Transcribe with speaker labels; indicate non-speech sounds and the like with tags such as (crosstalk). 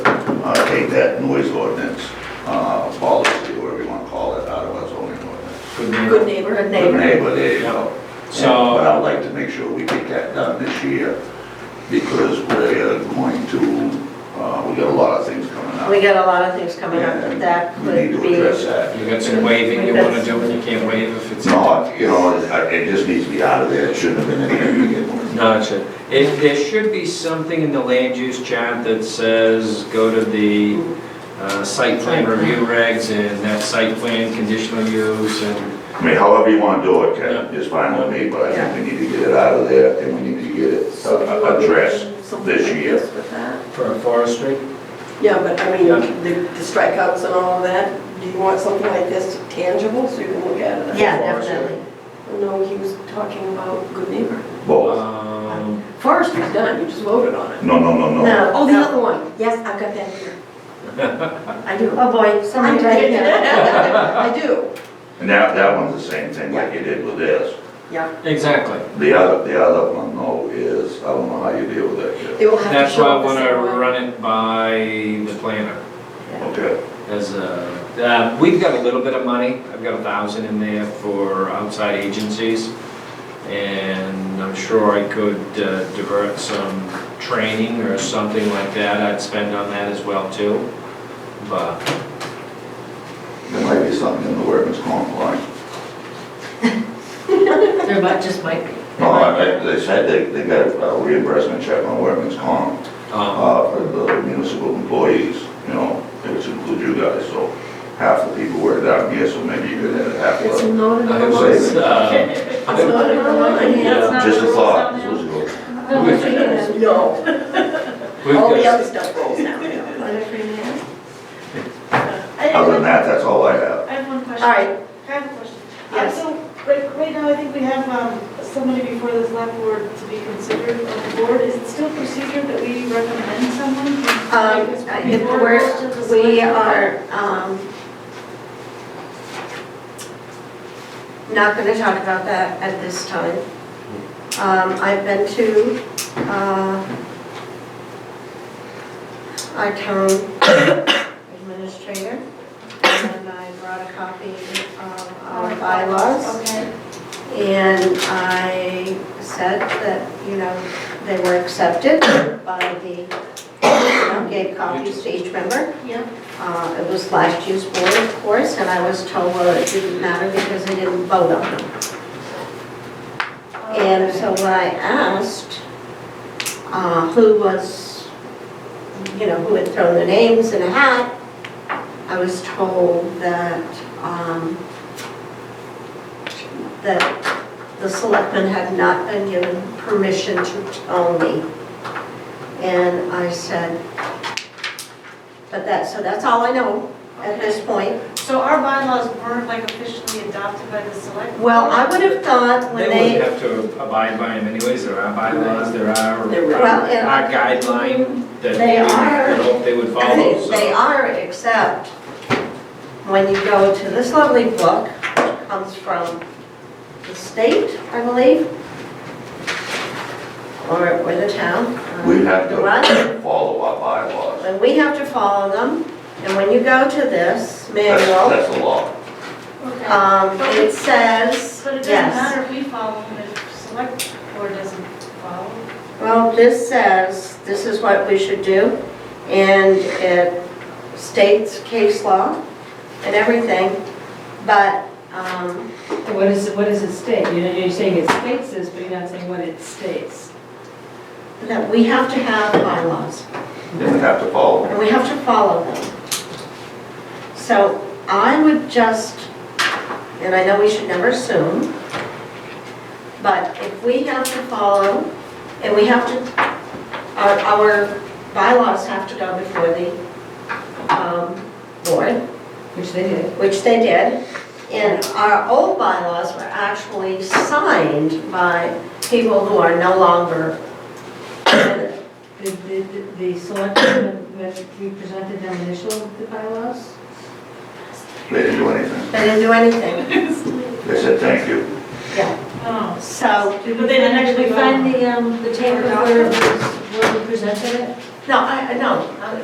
Speaker 1: Uh, take that noise ordinance, uh, policy, whatever you wanna call it, out of our zoning ordinance.
Speaker 2: Good neighbor.
Speaker 3: Good
Speaker 1: Good
Speaker 3: neighborhood neighbor.
Speaker 1: neighbor, there you go.
Speaker 2: So-
Speaker 1: But I'd like to make sure we get that done this year, because we're uh, going to, uh, we got a lot of things coming up.
Speaker 3: We got a lot of things coming up that that
Speaker 1: We need
Speaker 3: could
Speaker 1: to address
Speaker 3: be,
Speaker 4: uh,
Speaker 1: that.
Speaker 2: You got some waving you wanna do, and you can't wave if
Speaker 1: It's
Speaker 2: it's.
Speaker 1: not, you know, it- it just needs to be out of there, it shouldn't have been in there to begin with.
Speaker 2: Gotcha. If there should be something in the land use chart that says, go to the uh, site plan review regs and that site plan conditional use and,
Speaker 1: I mean, however you wanna do it, Ken, is fine with me, but I think we need to get it out of there, and we need to get it
Speaker 3: so you
Speaker 1: uh,
Speaker 3: want
Speaker 1: addressed.
Speaker 3: something like
Speaker 1: this year.
Speaker 3: this with that.
Speaker 2: for forestry?
Speaker 4: Yeah, but I mean,
Speaker 2: Yeah.
Speaker 4: the the strikeouts and all of that, do you want something like this tangible so you can look at it?
Speaker 3: Yeah,
Speaker 2: Forestry.
Speaker 3: definitely.
Speaker 4: No, he was talking about good neighbor.
Speaker 1: Both.
Speaker 2: Um,
Speaker 4: Forestry's done, you just voted on it.
Speaker 1: No, no, no, no.
Speaker 4: Oh, the other one, yes, I've got that here. I do.
Speaker 3: Oh, boy,
Speaker 4: I
Speaker 3: somebody
Speaker 4: do.
Speaker 3: right here.
Speaker 4: (laughs) I do.
Speaker 1: And that, that one's the same thing like you did with this.
Speaker 4: Yeah,
Speaker 2: exactly.
Speaker 1: The other, the other one though is, I don't know how you deal with that, Jeff.
Speaker 4: it will have to
Speaker 2: That's why
Speaker 4: show
Speaker 2: I
Speaker 4: up the
Speaker 2: wanna
Speaker 4: same way.
Speaker 2: run it by the planner
Speaker 1: Okay,
Speaker 2: as a, uh, we've got a little bit of money. I've got a thousand in there for outside agencies. And I'm sure I could uh, divert some training or something like that. I'd spend on that as well too. But
Speaker 1: there might be something in the workman's comp line.
Speaker 3: There might, just might be.
Speaker 1: No, Oh, I, I- they said they, they got a reimbursement check on workman's comp,
Speaker 2: Um,
Speaker 1: uh, for the municipal employees, you know, which include you guys, so half the people work down here, so maybe you could add half
Speaker 4: It's
Speaker 1: of.
Speaker 4: not in
Speaker 2: I
Speaker 4: the
Speaker 1: was-
Speaker 4: line.
Speaker 2: was, uh,
Speaker 4: It's not in the line.
Speaker 2: Yeah.
Speaker 1: Just a thought, this was good.
Speaker 4: No,
Speaker 2: (laughs) we've
Speaker 4: all the
Speaker 2: got-
Speaker 4: other stuff rolls now. yeah.
Speaker 1: Other than that, that's all I have.
Speaker 5: I have one question.
Speaker 4: All right,
Speaker 5: I have a question.
Speaker 4: Yes.
Speaker 5: Uh, So, right, right now, I think we have um, somebody before the select board to be considered on the board. Is it still procedure that we recommend someone?
Speaker 3: Um, if
Speaker 5: Before it goes to the
Speaker 3: we're,
Speaker 5: select
Speaker 3: we
Speaker 5: board?
Speaker 3: are, um, not gonna talk about that at this time. Um, I've been to, uh, our town administrator, and I brought a copy of our bylaws.
Speaker 5: Okay.
Speaker 3: And I said that, you know, they were accepted by the, you know, gave copies to each member.
Speaker 5: Yeah.
Speaker 3: Uh, It was last year's board, of course, and I was told, well, it didn't matter because they didn't vote on them. And so when I asked uh, who was, you know, who had thrown the names in a hat, I was told that, um, that the selectmen had not been given permission to tell me. And I said, but that, so that's all I know at this point.
Speaker 5: So our bylaws weren't like officially adopted by the select?
Speaker 3: Well,
Speaker 5: board?
Speaker 3: I would have thought when
Speaker 2: They would
Speaker 3: they,
Speaker 2: have to abide by them anyways, there are bylaws, there are
Speaker 4: There were-
Speaker 3: Well, and-
Speaker 2: our guideline that
Speaker 3: They are-
Speaker 2: we would hope they would follow, so.
Speaker 1: uh,
Speaker 3: they are, except when you go to this lovely book, which comes from the state, I believe, or, or the town. uh,
Speaker 1: We have
Speaker 3: Right?
Speaker 1: to follow our bylaws.
Speaker 3: And we have to follow them, and when you go to this
Speaker 1: That's,
Speaker 3: manual,
Speaker 1: that's the law.
Speaker 5: Okay.
Speaker 3: um, it says,
Speaker 5: But it doesn't
Speaker 3: yes.
Speaker 5: matter if we follow them, if select board doesn't follow.
Speaker 3: Well, this says, this is what we should do, and it states case law and everything, but, um,
Speaker 6: What is, what does it state? You know, you're saying it states this, but you're not saying what it states.
Speaker 3: that we have to have bylaws,
Speaker 1: Then we have to follow.
Speaker 3: and we have to follow them. So I would just, and I know we should never assume, but if we have to follow, and we have to, our, our bylaws have to go before the, um, board,
Speaker 6: Which they did.
Speaker 3: which they did. And our old bylaws were actually signed by people who are no longer,
Speaker 6: The, the, the select, when we presented them initial, the bylaws?
Speaker 1: They didn't do anything.
Speaker 3: they didn't do anything.
Speaker 1: They said, thank you.
Speaker 5: Oh.
Speaker 3: So,
Speaker 6: Did
Speaker 5: But they didn't
Speaker 6: find-
Speaker 5: actually
Speaker 6: we
Speaker 5: vote.
Speaker 6: find the, um, the tape of where, it was- where we presented it?
Speaker 3: no, I, I- no,